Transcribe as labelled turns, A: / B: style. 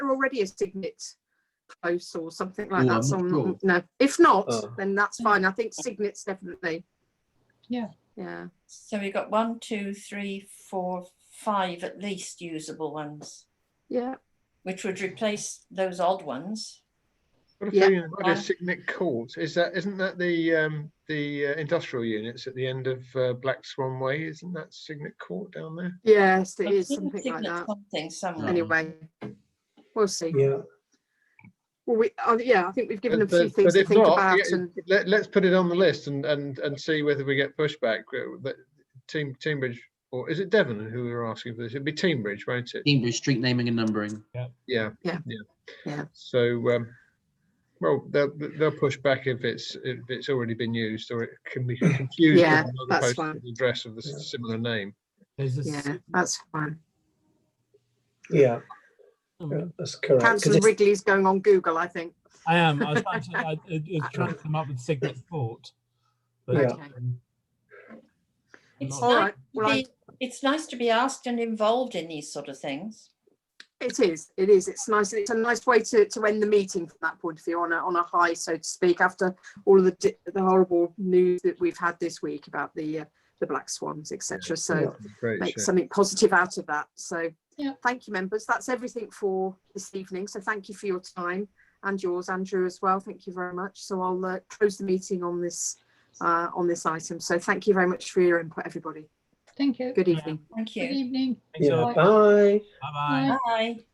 A: already a Signet close or something like
B: Oh,
A: that?
B: I'm
A: So
B: not
A: I'm-
B: sure.
A: No, if not,
B: Oh.
A: then that's fine. I think Signet's definitely.
C: Yeah.
A: Yeah.
D: So we got one, two, three, four, five at least usable ones,
A: Yeah.
D: which would replace those odd ones.
E: What
A: Yeah.
E: if you had
D: Yeah.
E: a Signet Court? Is that, isn't that the, um, the uh, industrial units at the end of uh, Black Swan Way? Isn't that Signet Court down there?
A: Yes, it
D: I've
A: is
D: seen
A: something like
D: Signet
A: that.
D: Something somewhere.
A: Anyway, we'll see.
B: Yeah.
A: Well, we, uh, yeah, I think we've given them
E: But-
A: a few
E: but-
A: things
E: but
A: to
E: if
A: think
E: not,
A: about
E: yeah,
A: and.
E: Let, let's put it on the list and, and, and see whether we get pushback. Uh, that- Team, Teambridge, or is it Devon who were asking for this? It'd be Teambridge, won't it?
B: Cambridge street naming and numbering.
E: Yeah.
A: Yeah. Yeah.
E: So, um, well, they'll, they'll push back if it's, if it's already been used or it can be confused. with
A: Yeah,
E: another
A: that's
E: postal
A: fine.
E: Address of the s- similar name.
F: There's a
A: Yeah,
F: s-
A: that's fine.
G: Yeah, yeah,
F: um,
G: that's correct. 'cause
A: Councillor
G: it's-
A: Wrigley's going on Google, I think.
F: I am. I was trying to, I, I was trying to come up with Signet Fort. But,
G: Yeah.
A: Okay.
F: um,
D: It's
A: All
D: nice
A: right.
D: to
A: Well, I-
D: be, it's nice to be asked and involved in these sort of things.
A: It is, it is. It's nice. It's a nice way to, to end the meeting from that point of view on a, on a high, so to speak, after all of the, di- the horrible news that we've had this week about the, uh, the black swans, etc. So
E: Great.
A: make
E: yeah.
A: something positive out of that. So
C: Yeah.
A: thank you, members. That's everything for this evening. So thank you for your time and yours, Andrew, as well. Thank you very much. So I'll uh, close the meeting on this, uh, on this item. So thank you very much for your input, everybody.
C: Thank you.
A: Good
F: Yeah.
A: evening.
D: Thank
C: Good
D: you.
C: evening.
F: thanks a
G: Yeah,
F: lot.
C: Bye.
G: bye.
F: Bye-bye.
D: Bye.